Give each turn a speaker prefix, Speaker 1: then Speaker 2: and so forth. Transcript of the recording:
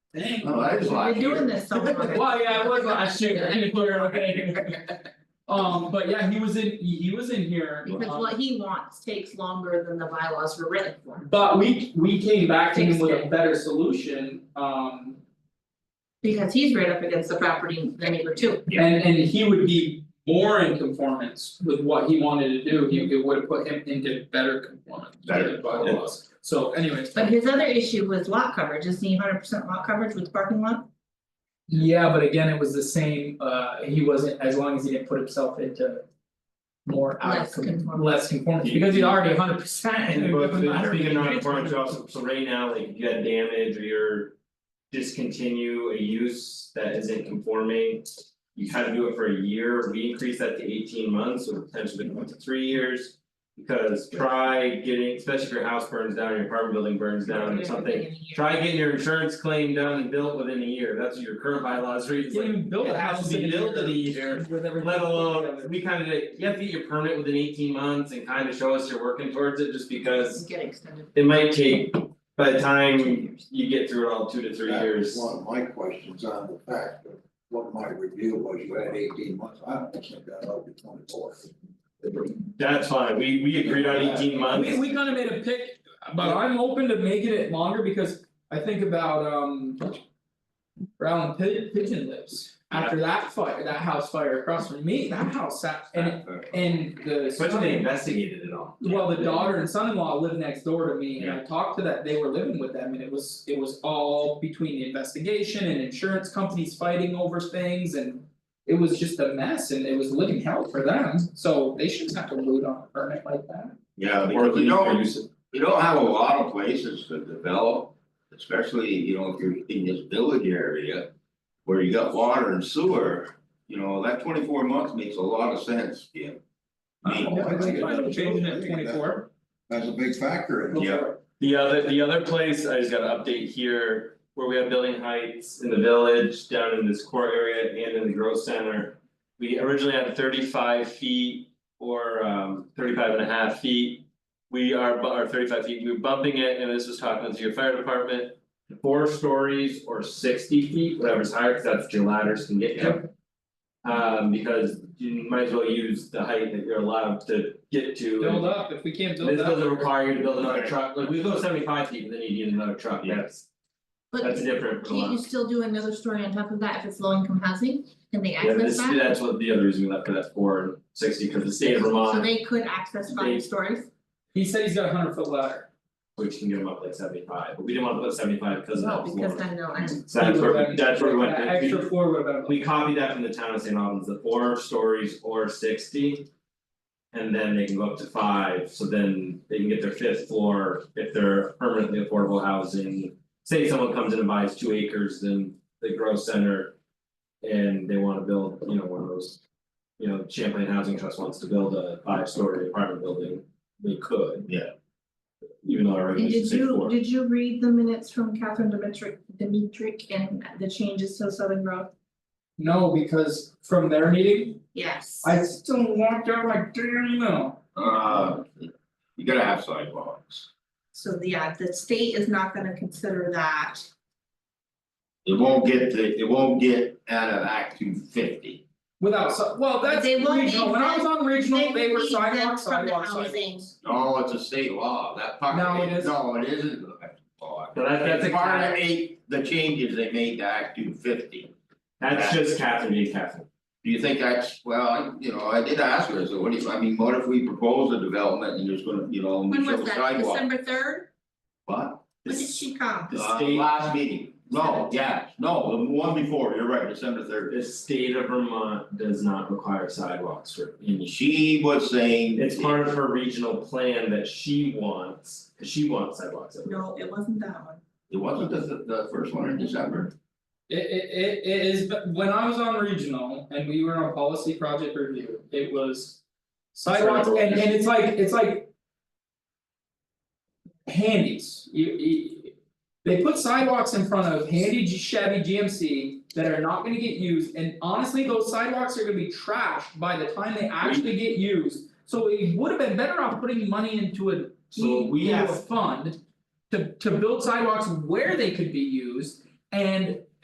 Speaker 1: Dang.
Speaker 2: No, I was
Speaker 1: We're
Speaker 2: last
Speaker 1: doing
Speaker 2: year.
Speaker 1: this somewhere.
Speaker 3: Well, yeah, it was last year, you were okay. Um, but yeah, he was in, he he was in here.
Speaker 1: Because
Speaker 4: uh,
Speaker 3: um,
Speaker 1: what he wants takes longer than the bylaws were written for,
Speaker 3: But we, we came back to him with a
Speaker 1: Fixed it.
Speaker 3: better solution, um,
Speaker 1: because he's right up against the property, the neighbor too.
Speaker 3: and and he would be more in conformance with what he wanted to do, he it would have put him into better conformance with
Speaker 2: Better,
Speaker 3: the bylaws, so anyways.
Speaker 1: But his other issue was lot coverage, isn't he hundred percent lot coverage with parking lot?
Speaker 3: Yeah, but again, it was the same, uh, he wasn't, as long as he didn't put himself into. More out of
Speaker 1: Less
Speaker 3: con-
Speaker 1: conformity.
Speaker 3: less conformance, because he's already hundred percent and it
Speaker 4: But
Speaker 3: doesn't
Speaker 4: the
Speaker 3: matter.
Speaker 4: speaking of non-conformance also, so right now, like if you had damage or you're. Discontinue a use that isn't conforming. You had to do it for a year, we increased that to eighteen months, so potentially going to three years. Because try getting, especially if your house burns down, your apartment building burns down or something, try getting your insurance claim done and built within a year, that's what your current bylaws read, it's
Speaker 3: You
Speaker 4: like.
Speaker 3: can build
Speaker 4: it
Speaker 3: a
Speaker 4: has
Speaker 3: house
Speaker 4: to be
Speaker 3: in a
Speaker 4: built in a year,
Speaker 3: with everything.
Speaker 4: Let alone, we kind of, did- you have to get your permit within eighteen months and kind of show us you're working towards it, just because.
Speaker 1: Get extended.
Speaker 4: It might take, by the time you get through it all, two to three
Speaker 5: That was
Speaker 4: years.
Speaker 5: One of my questions on the fact of what my review was, you had eighteen months, I don't think that ought to be twenty four.
Speaker 4: That's fine, we we agreed on eighteen months.
Speaker 3: We we kind of made a pick, but I'm open to making it longer because I think about um. Brown Pi- Pigeon lives, after that fire, that house fire across from me, that house sat and and the.
Speaker 4: Especially when they investigated it all.
Speaker 3: Well, the daughter and son-in-law lived next door to me and I talked to that, they were living with them and it was, it was all between the investigation and insurance companies fighting over things and. It was just a mess and it was living hell for them, so they shouldn't have to root on a permit like that.
Speaker 2: Yeah,
Speaker 4: They
Speaker 2: or
Speaker 4: could
Speaker 2: you don't,
Speaker 4: use it.
Speaker 2: you don't have a lot of places to develop, especially, you know, if you're in this village area. Where you got water and sewer, you know, that twenty four months makes a lot of sense, Jim. I
Speaker 3: Oh,
Speaker 2: mean,
Speaker 5: Yeah, I think it-
Speaker 3: Why don't change it at twenty-four?
Speaker 5: That's a big factor in it.
Speaker 2: Yeah.
Speaker 4: The other, the other place, I just got an update here, where we have building heights in the village, down in this core area and in the growth center. We originally had thirty five feet or um 35 and a half feet. We are, bu- or thirty five feet, we we're bumping it, and this was talking to your fire department. Four stories or sixty feet, whatever's higher, cause that's what your ladders can get you. Um because you might as well use the height that you're allowed to get to. and-
Speaker 3: Build up, if we can't build up.
Speaker 4: this doesn't require you to build another
Speaker 2: Okay.
Speaker 4: truck, like we go seventy five feet, but then you need another truck,
Speaker 2: Yeah.
Speaker 4: that's,
Speaker 1: But
Speaker 4: that's different for a
Speaker 1: can't you
Speaker 4: lot.
Speaker 1: still do another story on top of that if it's low income housing, can they
Speaker 4: Yeah,
Speaker 1: access
Speaker 4: this,
Speaker 1: that?
Speaker 4: that's what the other reason we left it at four and sixty, because the state of
Speaker 1: So
Speaker 4: Vermont,
Speaker 1: they could access
Speaker 4: They-
Speaker 1: five stories,
Speaker 3: He said he's got a hundred foot ladder.
Speaker 4: which can get them up like seventy five, but we didn't wanna put seventy five because of
Speaker 1: well,
Speaker 4: that
Speaker 1: Oh, because
Speaker 4: floor.
Speaker 1: I know, I
Speaker 4: So that's where, we- that's where we went,
Speaker 3: That
Speaker 4: we-
Speaker 3: extra floor would have been.
Speaker 4: we copied that from the town of St. Albans, the four stories or sixty. And then they can go up to five, so then they can get their fifth floor if they're permanently affordable housing. Say someone comes in and buys two acres in the growth center. And they wanna build, you know, one of those. You know, Champlain Housing Trust wants to build a five story apartment building, they could.
Speaker 2: Yeah.
Speaker 4: Even though our
Speaker 1: And did
Speaker 4: regulations say
Speaker 1: you,
Speaker 4: four.
Speaker 1: did you read the minutes from Catherine Dimitri, Dimitri and the changes to Southern Road?
Speaker 3: No, because from their meeting,
Speaker 1: Yes.
Speaker 3: I still walked out like, damn, no.
Speaker 2: Uh, you gotta have sidewalks,
Speaker 1: So yeah, the state is not gonna consider that,
Speaker 2: it won't get the, it won't get out of Act two fifty.
Speaker 3: Without, so, well, that's
Speaker 1: They won't be
Speaker 3: regional, when I was on regional,
Speaker 1: exempt-
Speaker 3: they were
Speaker 1: they won't be
Speaker 3: sidewalk,
Speaker 1: exempt from the
Speaker 3: sidewalk,
Speaker 1: housing.
Speaker 3: sidewalks.
Speaker 2: No, it's a state law, that part.
Speaker 3: No, it isn't.
Speaker 2: No, it isn't. Oh,
Speaker 4: So that that's
Speaker 2: That's
Speaker 4: a
Speaker 2: part of
Speaker 4: cap,
Speaker 2: eight, the changes they made to Act two fifty,
Speaker 4: that's just Catherine being Catherine.
Speaker 2: do you think that's, well, I- you know, I did ask her, I said, what do you, I mean, what if we propose a development and there's gonna, you know, and we
Speaker 1: When
Speaker 2: show
Speaker 1: was
Speaker 2: a
Speaker 1: that,
Speaker 2: sidewalk?
Speaker 1: December third,
Speaker 2: What?
Speaker 1: when did she come?
Speaker 4: The
Speaker 2: Uh,
Speaker 4: state-
Speaker 2: last meeting, no, yeah, no, the one before, you're right, December third,
Speaker 4: The state of Vermont does not require sidewalks for any.
Speaker 2: she was saying.
Speaker 4: It's part of her regional plan that she wants, cause she wants sidewalks everywhere.
Speaker 1: No, it wasn't that one.
Speaker 2: It wasn't the the first one in December,
Speaker 3: It it it it is, but when I was on regional and we were on policy project review, it was. Sidewalks
Speaker 4: Sidewalks.
Speaker 3: and and it's like, it's like. Handies, you you. They put sidewalks in front of handy G- Chevy GMC that are not gonna get used, and honestly, those sidewalks are gonna be trashed by the time they actually get used. So it would have been better off putting money into a
Speaker 4: So we
Speaker 3: into a
Speaker 4: asked-
Speaker 3: fund. To to build sidewalks where they could be used And